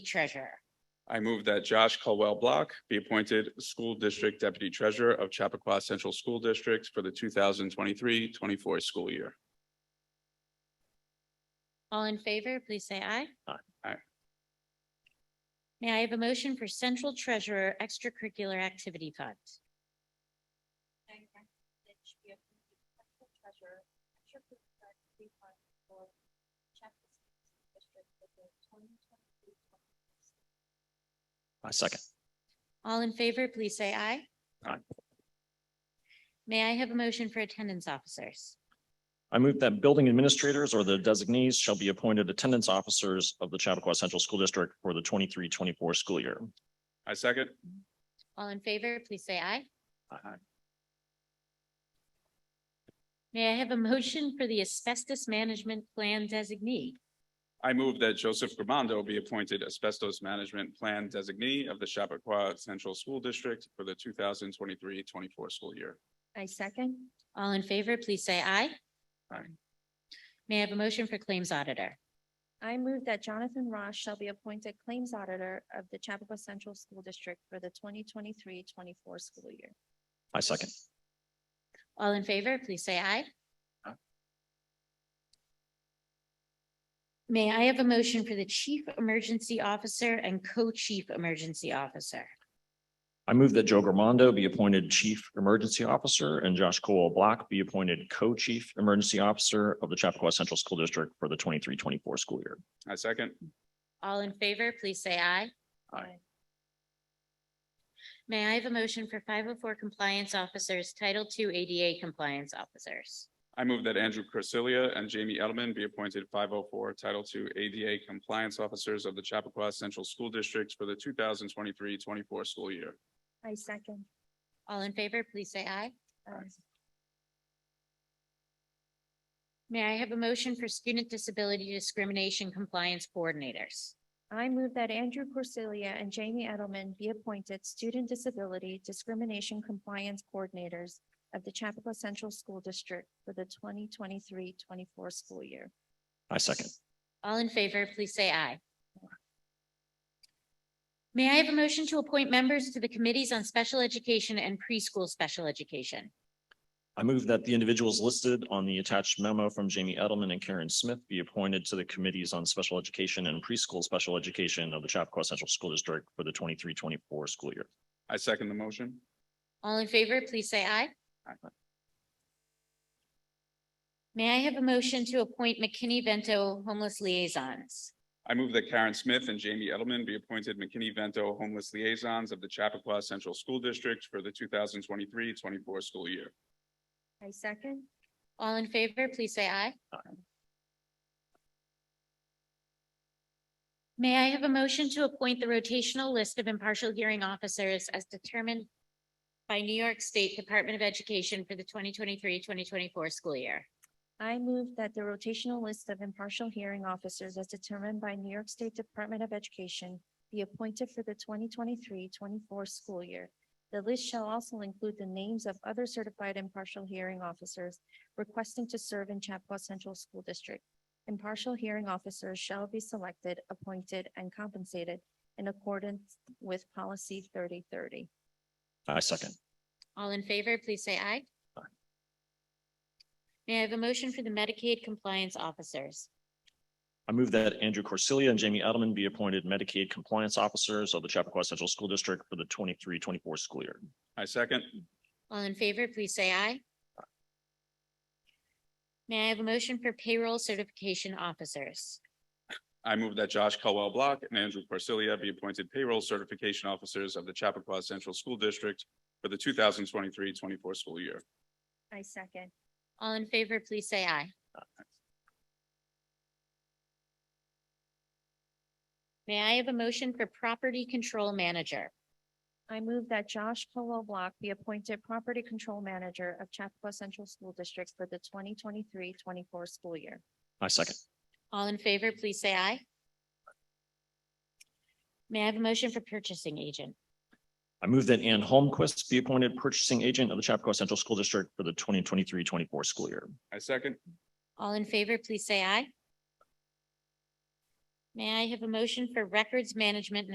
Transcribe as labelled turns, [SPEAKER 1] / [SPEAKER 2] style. [SPEAKER 1] treasurer.
[SPEAKER 2] I move that Josh Caldwell Block be appointed School District Deputy Treasurer of Chappaqua Central School District for the 2023-24 school year.
[SPEAKER 1] All in favor, please say aye.
[SPEAKER 3] Aye.
[SPEAKER 2] Aye.
[SPEAKER 1] May I have a motion for Central Treasurer Extracurricular Activity Fund?
[SPEAKER 3] I second.
[SPEAKER 1] All in favor, please say aye.
[SPEAKER 3] Aye.
[SPEAKER 1] May I have a motion for Attendance Officers?
[SPEAKER 3] I move that building administrators or their designees shall be appointed attendance officers of the Chappaqua Central School District for the 23-24 school year.
[SPEAKER 2] I second.
[SPEAKER 1] All in favor, please say aye. May I have a motion for the Asbestos Management Plan Designee?
[SPEAKER 2] I move that Joseph Gramando be appointed Asbestos Management Plan Designee of the Chappaqua Central School District for the 2023-24 school year.
[SPEAKER 1] I second. All in favor, please say aye.
[SPEAKER 2] Aye.
[SPEAKER 1] May I have a motion for Claims Auditor?
[SPEAKER 4] I move that Jonathan Ross shall be appointed Claims Auditor of the Chappaqua Central School District for the 2023-24 school year.
[SPEAKER 3] I second.
[SPEAKER 1] All in favor, please say aye.
[SPEAKER 2] Aye.
[SPEAKER 1] May I have a motion for the Chief Emergency Officer and Co-Chief Emergency Officer?
[SPEAKER 3] I move that Joe Gramando be appointed Chief Emergency Officer and Josh Cole Block be appointed Co-Chief Emergency Officer of the Chappaqua Central School District for the 23-24 school year.
[SPEAKER 2] I second.
[SPEAKER 1] All in favor, please say aye.
[SPEAKER 2] Aye.
[SPEAKER 1] May I have a motion for five oh four compliance officers, Title II ADA compliance officers?
[SPEAKER 2] I move that Andrew Corsilia and Jamie Edelman be appointed five oh four Title II ADA Compliance Officers of the Chappaqua Central School District for the 2023-24 school year.
[SPEAKER 4] I second.
[SPEAKER 1] All in favor, please say aye.
[SPEAKER 4] Um,
[SPEAKER 1] May I have a motion for student disability discrimination compliance coordinators?
[SPEAKER 4] I move that Andrew Corsilia and Jamie Edelman be appointed Student Disability Discrimination Compliance Coordinators of the Chappaqua Central School District for the 2023-24 school year.
[SPEAKER 3] I second.
[SPEAKER 1] All in favor, please say aye. May I have a motion to appoint members to the committees on special education and preschool special education?
[SPEAKER 3] I move that the individuals listed on the attached memo from Jamie Edelman and Karen Smith be appointed to the Committees on Special Education and Preschool Special Education of the Chappaqua Central School District for the 23-24 school year.
[SPEAKER 2] I second the motion.
[SPEAKER 1] All in favor, please say aye.
[SPEAKER 2] Aye.
[SPEAKER 1] May I have a motion to appoint McKinney Vento homeless liaisons?
[SPEAKER 2] I move that Karen Smith and Jamie Edelman be appointed McKinney-Vento Homeless Liaisons of the Chappaqua Central School District for the 2023-24 school year.
[SPEAKER 4] I second.
[SPEAKER 1] All in favor, please say aye.
[SPEAKER 3] Aye.
[SPEAKER 1] May I have a motion to appoint the rotational list of impartial hearing officers as determined by New York State Department of Education for the 2023-2024 school year?
[SPEAKER 4] I move that the rotational list of impartial hearing officers as determined by New York State Department of Education be appointed for the 2023-24 school year. The list shall also include the names of other certified impartial hearing officers requesting to serve in Chappaqua Central School District. Impartial hearing officers shall be selected, appointed, and compensated in accordance with policy 3030.
[SPEAKER 3] I second.
[SPEAKER 1] All in favor, please say aye.
[SPEAKER 3] Aye.
[SPEAKER 1] May I have a motion for the Medicaid compliance officers?
[SPEAKER 3] I move that Andrew Corsilia and Jamie Edelman be appointed Medicaid Compliance Officers of the Chappaqua Central School District for the 23-24 school year.
[SPEAKER 2] I second.
[SPEAKER 1] All in favor, please say aye. May I have a motion for payroll certification officers?
[SPEAKER 2] I move that Josh Caldwell Block and Andrew Parsilia be appointed Payroll Certification Officers of the Chappaqua Central School District for the 2023-24 school year.
[SPEAKER 4] I second.
[SPEAKER 1] All in favor, please say aye. May I have a motion for property control manager?
[SPEAKER 4] I move that Josh Colwell Block be appointed Property Control Manager of Chappaqua Central School District for the 2023-24 school year.
[SPEAKER 3] I second.
[SPEAKER 1] All in favor, please say aye. May I have a motion for purchasing agent?
[SPEAKER 3] I move that Ann Holmquist be appointed Purchasing Agent of the Chappaqua Central School District for the 2023-24 school year.
[SPEAKER 2] I second.
[SPEAKER 1] All in favor, please say aye. May I have a motion for records management and